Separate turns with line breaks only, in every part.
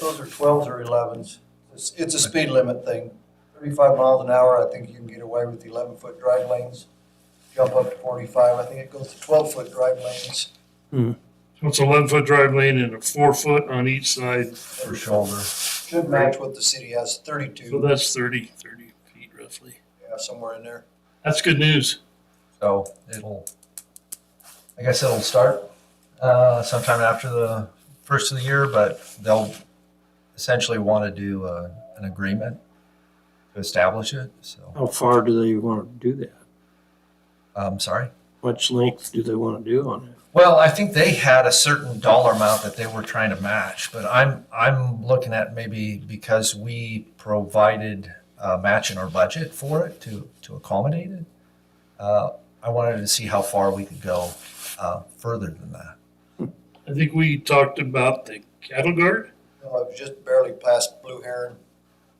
Those are twelves or elevens. It's, it's a speed limit thing. Thirty-five miles an hour, I think you can get away with eleven-foot drive lanes. Jump up to forty-five, I think it goes to twelve-foot drive lanes.
So It's a eleven-foot drive lane and a four-foot on each side,
For shoulder. Should match what the city has,
so
thirty-two,
that's 30 30 feet roughly.
yeah, somewhere in there.
That's good news.
So it'll, I guess it'll start uh, sometime after the first of the year, but they'll essentially want to do uh, an agreement to establish it. So,
How far do they want to do that?
I'm sorry.
Much length do they want to do on it?
Well, I think they had a certain dollar amount that they were trying to match, but I'm, I'm looking at maybe because we provided a match in our budget for it to, to accommodate it. Uh, I wanted to see how far we could go uh, further than that.
I think we talked about the cattle guard,
No, I was just barely past Blue Heron.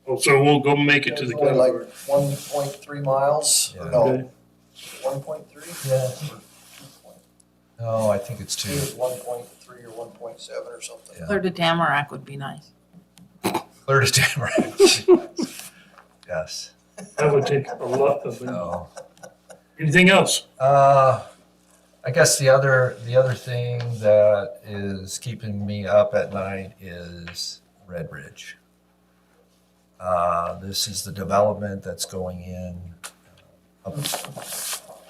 Oh, so we'll go make it to the
It's only
cattle guard.
Like one point three miles, or
Yeah.
no,
Okay.
one point three?
Yeah. No, I think it's
Two
two.
is one point three or one point seven or something.
Yeah.
Clear to Tamarack would be nice.
Clear to Tamarack. yes.
That would take a lot of, them.
No.
anything else?
Uh, I guess the other the other thing that is keeping me up at night is Red Ridge. Uh, this is the development that's going in up,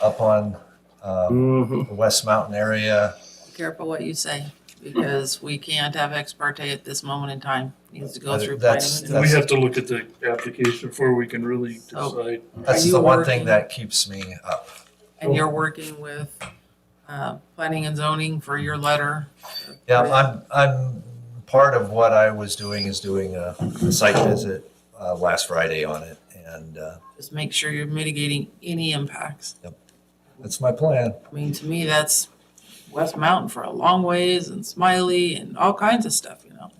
up on um,
Mm-hmm.
the West Mountain area.
Be Careful what you say, because we can't have ex parte at this moment in time. Needs to go through
That's- Oh.
planning.
And we have to look at the application before we can really
So-
decide.
That's
Are you
the one
working-
thing that keeps me up.
And you're working with, uh, planning and zoning for your letter.
Yeah, I'm, I'm, part of what I was doing is doing a a site visit uh, last Friday on it, and uh,
Just make sure you're mitigating any impacts.
that's my plan.
I mean, to me, that's West Mountain for a long ways and Smiley and all kinds of stuff, you know?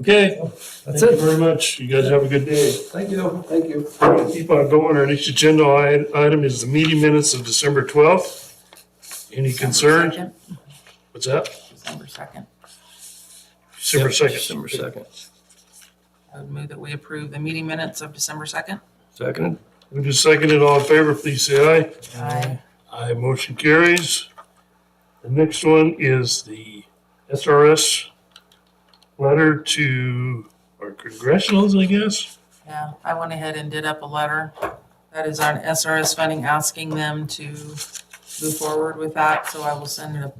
Okay,
That's
thank you
it.
very much. You guys have a good day.
Thank you.
Thank you.
We're gonna Keep on going. Our next agenda i- item is the meeting minutes of December twelfth. Any concerns?
Second,
What's that?
December second.
December second.
December second.
I would move that we approve the meeting minutes of December second.
Second.
Who just seconded all in favor, please say aye.
Aye.
Aye, motion carries. The next one is the SRS letter to our congressionals, I guess.
Yeah, I went ahead and did up a letter. That is on SRS funding, asking them to move forward with that, so I will send a,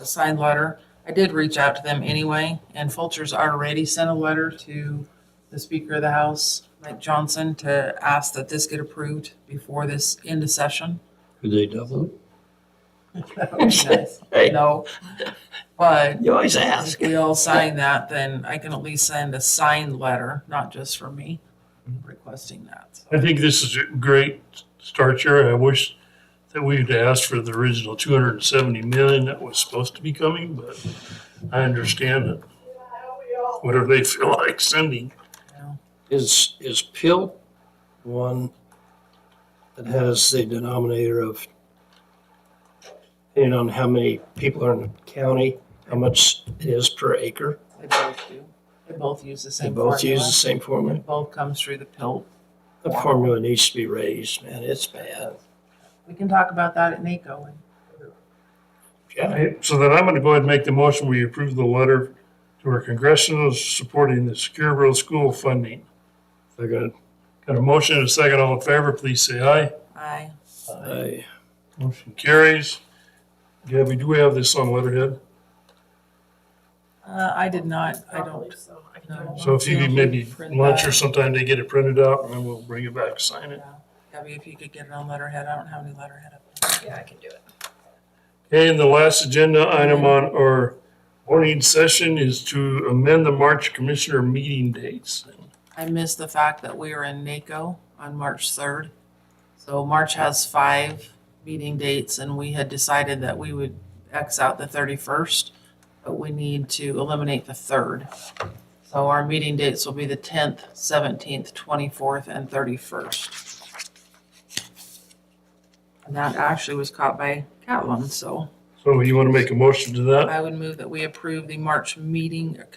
a signed letter. I did reach out to them anyway, and Fulcher's already sent a letter to the Speaker of the House, Mike Johnson, to ask that this get approved before this end of session.
Could they double it?
That would be nice.
Hey.
No, but
You always
if we all sign that, then I can at least send a signed letter, not just for me, requesting that.
I think this is a great start here. I wish that we'd asked for the original two hundred and seventy million that was supposed to be coming, but I understand it. Whatever they feel like sending.
you know?
Is, is PIL one that has the denominator of, depending on how many people are in the county, how much it is per acre?
They both do. They both use the
They
same
both use the
formula.
same formula.
It both comes through the pill.
The formula needs to be raised, man. It's bad.
We can talk about that at NACO.
Yeah.
I- So then I'm gonna go ahead and make the motion, we approve the letter to our congressionals supporting the secure rural school funding.
They're gonna,
Got a motion and a second, all in favor, please say aye.
Aye.
I,
Motion carries. Gabby, do we have this on letterhead?
Uh, I did not, I don't. No.
So if you could maybe
Print
lunch
that.
or sometime to get it printed out, and then we'll bring it back, sign it.
Gabby, if you could get it on letterhead, I don't have any letterhead up.
Yeah, I can do it.
Okay, and the last agenda item on our morning session is to amend the March commissioner meeting dates.
I missed the fact that we are in NACO on March third. So March has five meeting dates and we had decided that we would X out the thirty-first, but we need to eliminate the third. So our meeting dates will be the tenth, seventeenth, twenty-fourth, and thirty-first. And that actually was caught by Catlin, so
So you want to make a motion to that?
I would move that we approve the March meeting